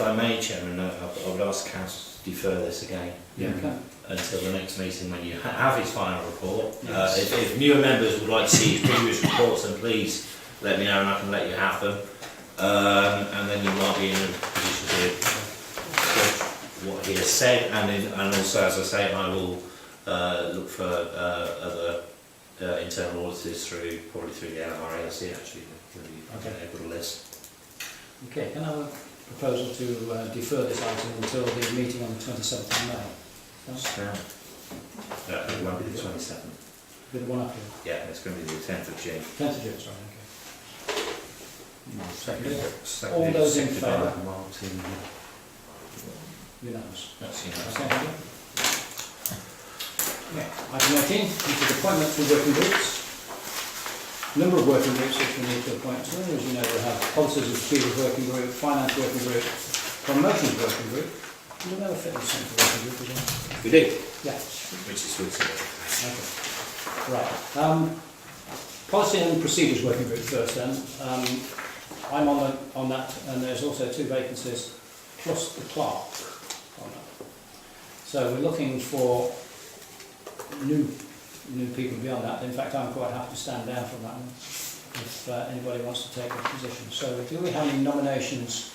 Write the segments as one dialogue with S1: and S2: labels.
S1: I may, Chairman, I I would ask council to defer this again
S2: Yeah, okay.
S1: until the next meeting when you ha- have his final report. Uh,
S2: Yes.
S1: if, if newer members would like to see his previous reports, then please let me know and I can let you have them. Um, and then you might be in a position to judge what he has said and, in, and also, as I say, I will uh, look for uh, other uh, internal auditors through, probably through the LRALC actually, if you've
S2: Okay.
S1: able to list.
S2: Okay, can I have a proposal to uh, defer this item until the meeting on the 27th of May?
S1: Yeah, Uh, it won't be the 27th.
S2: Be the one after,
S1: Yeah, it's going to be the 10th of June.
S2: 10th of June, sorry, okay.
S1: Second, second,
S2: All those in
S1: seconded
S2: favour?
S1: by Martin.
S2: Unanimous.
S1: That's
S2: That's
S1: unanimous.
S2: not good. Yeah, Item 18, which is appointment to working groups. Number of working groups which we need to appoint to, as you know, we have policies of procedure working group, finance working group, promotions working group, and another fitness centre working group as well.
S1: We do.
S2: Yeah.
S1: Which is good.
S2: Okay. Right. Um, policy and procedures working group first then. Um, I'm on, the, on that and there's also two vacancies plus the clerk on that. So we're looking for new, new people beyond that. In fact, I'm quite happy to stand down from that one if uh, anybody wants to take a position. So do we have any nominations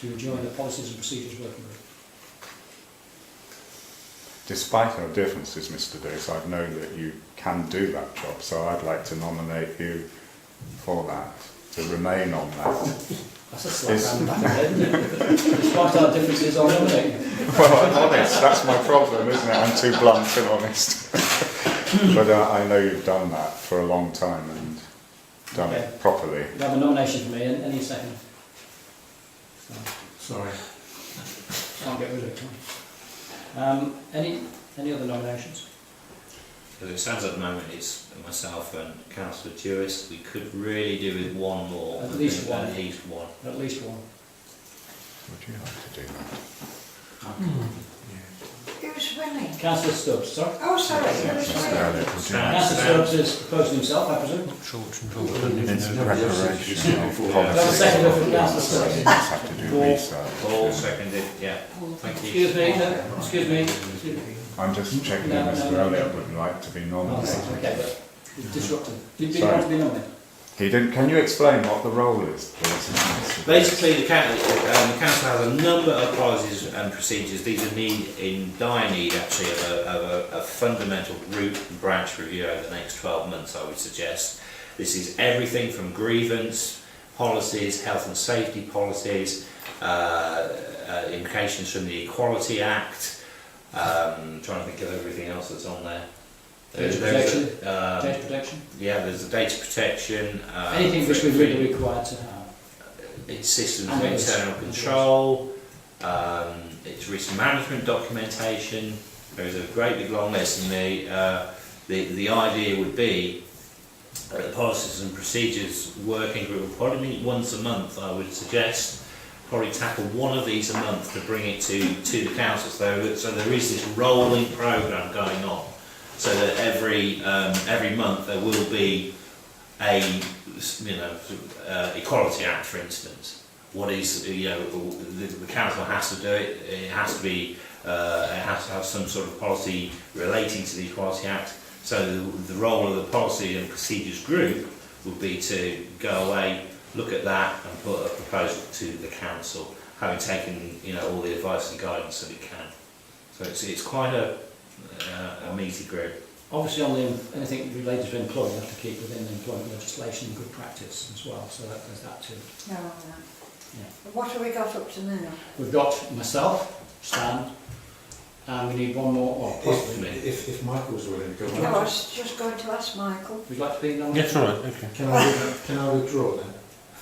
S2: to join the policies and procedures working group?
S3: Despite our differences, Mr. Davis, I've known that you can do that job, so I'd like to nominate you for that, to remain on that.
S2: That's a slap round the
S3: Yes.
S2: back, isn't it? Despite our differences, I'll nominate you.
S3: well, I'm honest, that's my problem, isn't it? I'm too blunt and honest. but uh, I know you've done that for a long time and done
S2: Okay.
S3: it properly.
S2: You have a nomination for me, an- any second. So,
S4: Sorry.
S2: I'll get rid of it. can't I? Um, any, any other nominations?
S1: As it stands at the moment, it's myself and councillor Jewis. We could really do with one more.
S2: At least one.
S1: At least one.
S2: At least one.
S3: Would you like to do that?
S5: Who's winning?
S2: Councillor Stubbs, sorry.
S5: Oh, sorry, who's winning?
S2: Councillor Stubbs is proposing himself, I presume.
S3: It's preparation of
S2: Have a second
S3: policy.
S2: from councillor
S3: So you
S2: Stubbs.
S3: just have to do
S2: Paul.
S3: research.
S1: All seconded, yeah.
S5: Oh,
S1: Thank you.
S2: Excuse me, no, excuse me. excuse me.
S3: I'm just checking
S2: No,
S3: if
S2: no,
S3: Mr.
S2: no.
S3: Elliott would like to be
S2: Oh,
S3: nominated.
S2: right, Okay, but you've disrupted. Did did you
S3: Sorry.
S2: want to be nominated?
S3: He didn't. Can you explain what the role is, please?
S1: Basically, the council, um, the council has a number of policies and procedures. These are need, in dire need, actually, of a, of a, a fundamental root and branch review over the next 12 months, I would suggest. This is everything from grievance policies, health and safety policies, uh, uh, implications from the Equality Act. Um, trying to think of everything else that's on there.
S2: Data protection.
S1: a- um,
S2: Data protection?
S1: yeah, there's the data protection. Um,
S2: Anything which
S1: for-
S2: we really required to have.
S1: its systems
S2: And
S1: of
S2: it's-
S1: internal control, um, its risk management documentation. There is a great big long list, and the, uh, the, the idea would be that the policies and procedures working group will probably meet once a month, I would suggest. Probably tackle one of these a month to bring it to, to the council. So, that- so there is this rolling programme going on, so that every um, every month there will be a you know uh, equality act, for instance what is you know the, the council has to do it. It has to be uh, it has to have some sort of policy relating to the Equality Act. So the, the role of the policy and procedures group would be to go away, look at that, and put a proposal to the council, having taken you know all the advice and guidance that it can. So it's it's quite a uh, a meaty group.
S2: Obviously, on the, anything related to employment, you have to keep within employment legislation and good practice as well, so that, there's that too.
S5: No, no. What have we got up to now?
S2: We've got myself, Stan, and we need one more, or
S4: If,
S2: possibly me.
S4: if, if Michael's willing to go
S5: No, I
S4: on.
S5: was just going to ask Michael.
S2: Would you like to be nominated?
S6: Yes, all right, okay.
S4: Can I, with- can I withdraw then,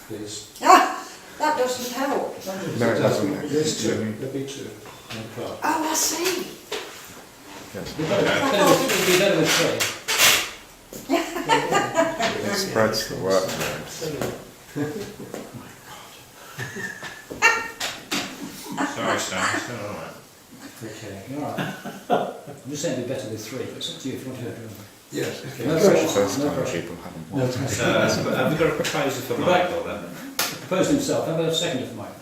S4: please?
S5: Ah, that doesn't help.
S3: No, it doesn't.
S4: There's two, there'll be two. And Clark.
S5: Oh, I see.
S3: Yes.
S2: We'd better- we'd better- we'd be better with three.
S3: It spreads the workload.
S1: Sorry, Stan. it's not all right.
S4: Okay.
S2: You're all right. I'm just saying it'd be better with three, but it's up to you if you want to do it.
S4: Yes, okay.
S2: No
S3: First
S2: pressure, no
S3: time
S2: pressure.
S3: people haven't
S4: No,
S3: wanted.
S1: Uh,
S4: thank you.
S1: So have we got a proposal for Michael then?
S2: Proposed himself, have a second for Mike.